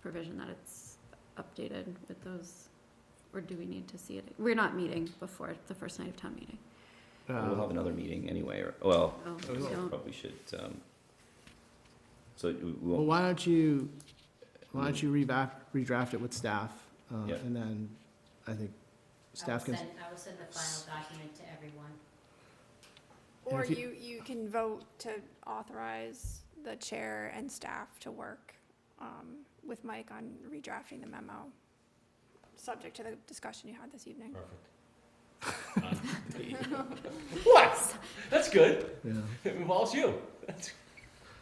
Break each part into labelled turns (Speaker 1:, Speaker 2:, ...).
Speaker 1: provision that it's updated with those? Or do we need to see it? We're not meeting before the first night of town meeting.
Speaker 2: Uh,
Speaker 3: Well,
Speaker 2: Um,
Speaker 3: We'll have another meeting anyway, or, well,
Speaker 1: Oh,
Speaker 3: I
Speaker 1: we
Speaker 3: guess
Speaker 1: don't.
Speaker 3: probably should, um, so we we
Speaker 2: Well,
Speaker 3: won't,
Speaker 2: why don't you, why don't you revap, redraft it with staff? uh,
Speaker 3: Yeah.
Speaker 2: And then I think staff can,
Speaker 4: I will send, I will send the final document to everyone.
Speaker 2: And
Speaker 5: Or
Speaker 2: if you-
Speaker 5: you, you can vote to authorize the chair and staff to work um, with Mike on redrafting the memo, subject to the discussion you had this evening.
Speaker 6: Perfect. What? That's good.
Speaker 2: yeah.
Speaker 6: It involves you.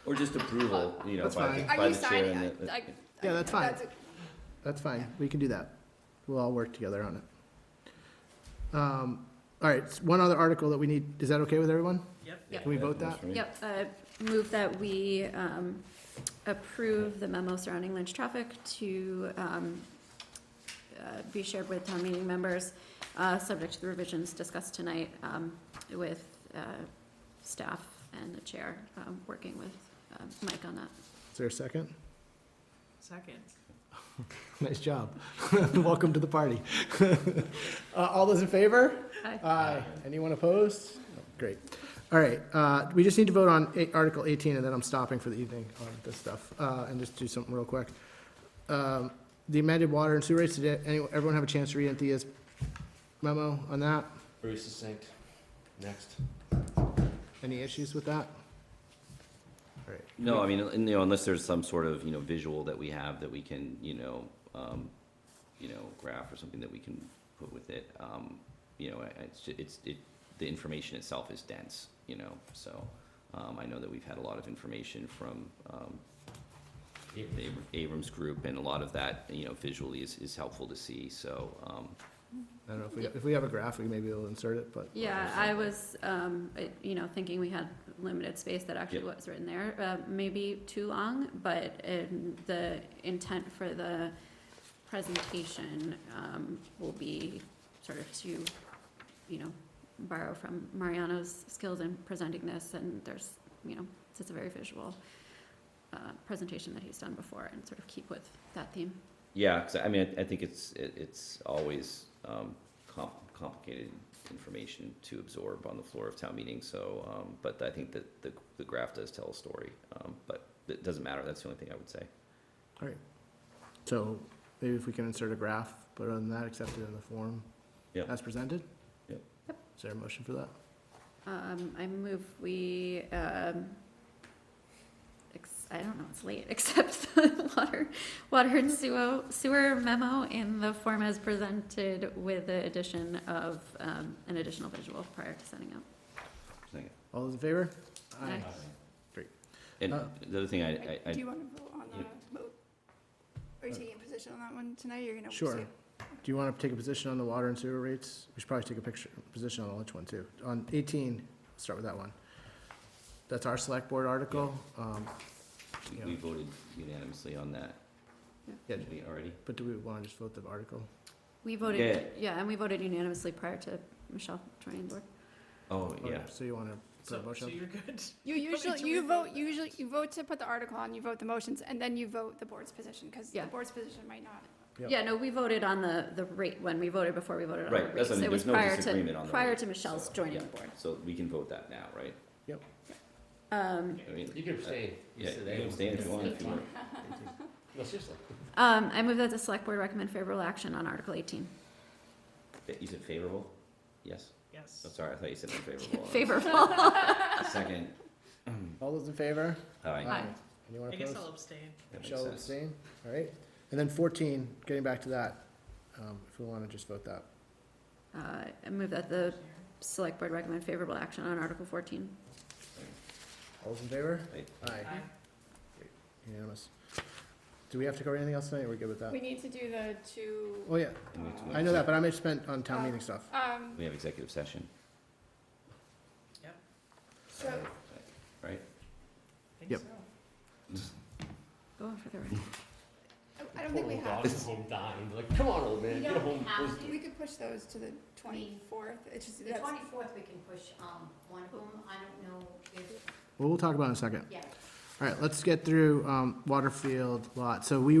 Speaker 3: or just approval, you know,
Speaker 2: That's
Speaker 3: by,
Speaker 2: fine.
Speaker 3: the- by the chair and the.
Speaker 2: Yeah, that's fine.
Speaker 5: a-
Speaker 2: That's fine, we can do that. We'll all work together on it. Um, All right, s- one other article that we need, is that okay with everyone?
Speaker 1: Yep.
Speaker 2: Can we vote
Speaker 3: that's
Speaker 2: that?
Speaker 3: for me.
Speaker 1: Yep, uh, move that we, um, approve the memo surrounding Lynch traffic to, um, uh, be shared with town meeting members, uh, subject to the revisions discussed tonight, um, with, uh, staff and the chair, um, working with, um, Mike on that.
Speaker 2: Is there a second?
Speaker 7: Second.
Speaker 2: Nice job. Welcome to the party. Uh, All those in favor?
Speaker 1: Aye.
Speaker 2: Aye. Anyone opposed? No, Great. All right, uh, we just need to vote on eight- Article 18, and then I'm stopping for the evening on this stuff, uh, and just do something real quick. Um, The amended water and sewer rates, did anyone- everyone have a chance to read Anthea's memo on that?
Speaker 6: Very succinct. Next.
Speaker 2: Any issues with that? All right.
Speaker 3: No, I mean, and, you know, unless there's some sort of, you know, visual that we have that we can, you know, um, you know, graph or something that we can put with it, um, you know, I- it's, ju- it's, it, the information itself is dense, you know, so, um, I know that we've had a lot of information from, um, the Abr- Abrams Group, and a lot of that, you know, visually is, is helpful to see, so, um,
Speaker 2: I don't know, if we, if we have a graph, we maybe will insert it, but.
Speaker 1: Yeah, I was, um, I- you know, thinking we had limited space that actually
Speaker 3: Yeah.
Speaker 1: was written there, uh, maybe too long, but, um, the intent for the presentation, um, will be sort of to, you know, borrow from Mariano's skills in presenting this, and there's, you know, it's- it's a very visual, uh, presentation that he's done before, and sort of keep with that theme.
Speaker 3: yeah, 'cause I mean, I, I think it's, it- it's always, um, com- complicated information to absorb on the floor of town meeting, so, um, but I think that the, the graph does tell a story, um, but it doesn't matter, that's the only thing I would say.
Speaker 2: So maybe if we can insert a graph, but other than that, accept it in the form
Speaker 3: Yeah.
Speaker 2: as presented?
Speaker 3: Yep.
Speaker 1: Yep.
Speaker 2: Is there a motion for that?
Speaker 1: Um, I move we, um, ex- I don't know, it's late, accept the water, water and sewer, sewer memo in the form as presented with the addition of, um, an additional visual prior to sending out.
Speaker 2: All those in favor?
Speaker 1: Aye.
Speaker 3: And
Speaker 2: Uh,
Speaker 3: the other thing I, I,
Speaker 5: Do
Speaker 3: I,
Speaker 5: you want to vote on
Speaker 3: Yeah. Uh,
Speaker 5: the vote? Are you taking a position on that one tonight? You're going to?
Speaker 2: Sure. Do you want to take a position on the water and sewer rates? We should probably take a picture, position on the lunch one too. On eighteen, start with that one. That's our select board article. Um,
Speaker 3: we-
Speaker 2: Yeah.
Speaker 3: we voted unanimously on that,
Speaker 2: yeah,
Speaker 3: did we already?
Speaker 2: but do we want to just vote the article?
Speaker 1: We voted, yeah, and we voted unanimously prior to Michelle joining the board.
Speaker 3: Oh,
Speaker 2: Okay,
Speaker 3: yeah,
Speaker 2: So you want to put
Speaker 7: So,
Speaker 2: a
Speaker 7: so
Speaker 2: motion?
Speaker 7: you're good.
Speaker 5: You
Speaker 7: Why don't
Speaker 5: usually,
Speaker 7: you
Speaker 5: you
Speaker 7: revote
Speaker 5: vote,
Speaker 7: that?
Speaker 5: usually, you vote to put the article on, you vote the motions, and then you vote the board's position, because the
Speaker 1: Yeah.
Speaker 5: board's position might not.
Speaker 2: Yep.
Speaker 1: Yeah, no, we voted on the, the rate, when we voted before we voted on the
Speaker 3: Right,
Speaker 1: rates.
Speaker 3: that's what I mean,
Speaker 1: It was
Speaker 3: there's no
Speaker 1: prior to-
Speaker 3: disagreement on the
Speaker 1: Prior
Speaker 3: rate,
Speaker 1: to Michelle's
Speaker 3: so,
Speaker 1: joining
Speaker 3: yeah.
Speaker 1: the board.
Speaker 3: so we can vote that now, right?
Speaker 1: Um,
Speaker 3: I mean,
Speaker 6: You can abstain.
Speaker 3: Yeah, you can abstain if you want, if you want.
Speaker 6: No, seriously.
Speaker 1: um, I move that the select board recommend favorable action on Article eighteen.
Speaker 3: Fa- You said favorable? Yes?
Speaker 7: Yes.
Speaker 3: Oh, sorry, I thought you said unfavorable.
Speaker 1: Favorable.
Speaker 3: Second,
Speaker 2: All those in favor?
Speaker 3: aye.
Speaker 1: Aye.
Speaker 2: Anyone
Speaker 7: I guess
Speaker 2: opposed?
Speaker 7: I'll abstain.
Speaker 3: That makes
Speaker 2: Michelle
Speaker 3: sense.
Speaker 2: abstain, all right. And then fourteen, getting back to that, um, if we want to just vote that.
Speaker 1: Uh, I move that the select board recommend favorable action on Article fourteen.
Speaker 2: All those in favor?
Speaker 3: Aye.
Speaker 2: Aye,
Speaker 7: Aye.
Speaker 2: unanimous. Do we have to cover anything else tonight? We're good with that?
Speaker 5: We need to do the two,
Speaker 2: Oh, yeah,
Speaker 3: And we have to
Speaker 5: uh,
Speaker 3: go
Speaker 2: I know that, but I'm spent on
Speaker 7: Uh,
Speaker 2: town meeting stuff.
Speaker 5: um,
Speaker 3: We have executive session,
Speaker 5: so,
Speaker 3: right?
Speaker 7: I think
Speaker 2: Yep.
Speaker 7: so.
Speaker 1: Go on for the ride.
Speaker 5: I don't think we
Speaker 6: Poor old
Speaker 5: have.
Speaker 6: dog is home dying. Like, come on, old man,
Speaker 4: You
Speaker 6: get
Speaker 4: don't
Speaker 6: home.
Speaker 4: have
Speaker 6: please."
Speaker 4: to.
Speaker 5: We could push those to the twenty-fourth, it's just,
Speaker 4: The
Speaker 5: that's,
Speaker 4: twenty-fourth, we can push, um, one of them, I don't know if,
Speaker 2: Well, we'll talk about it in a second.
Speaker 4: yeah.
Speaker 2: All right, let's get through um, Waterfield Lot. So we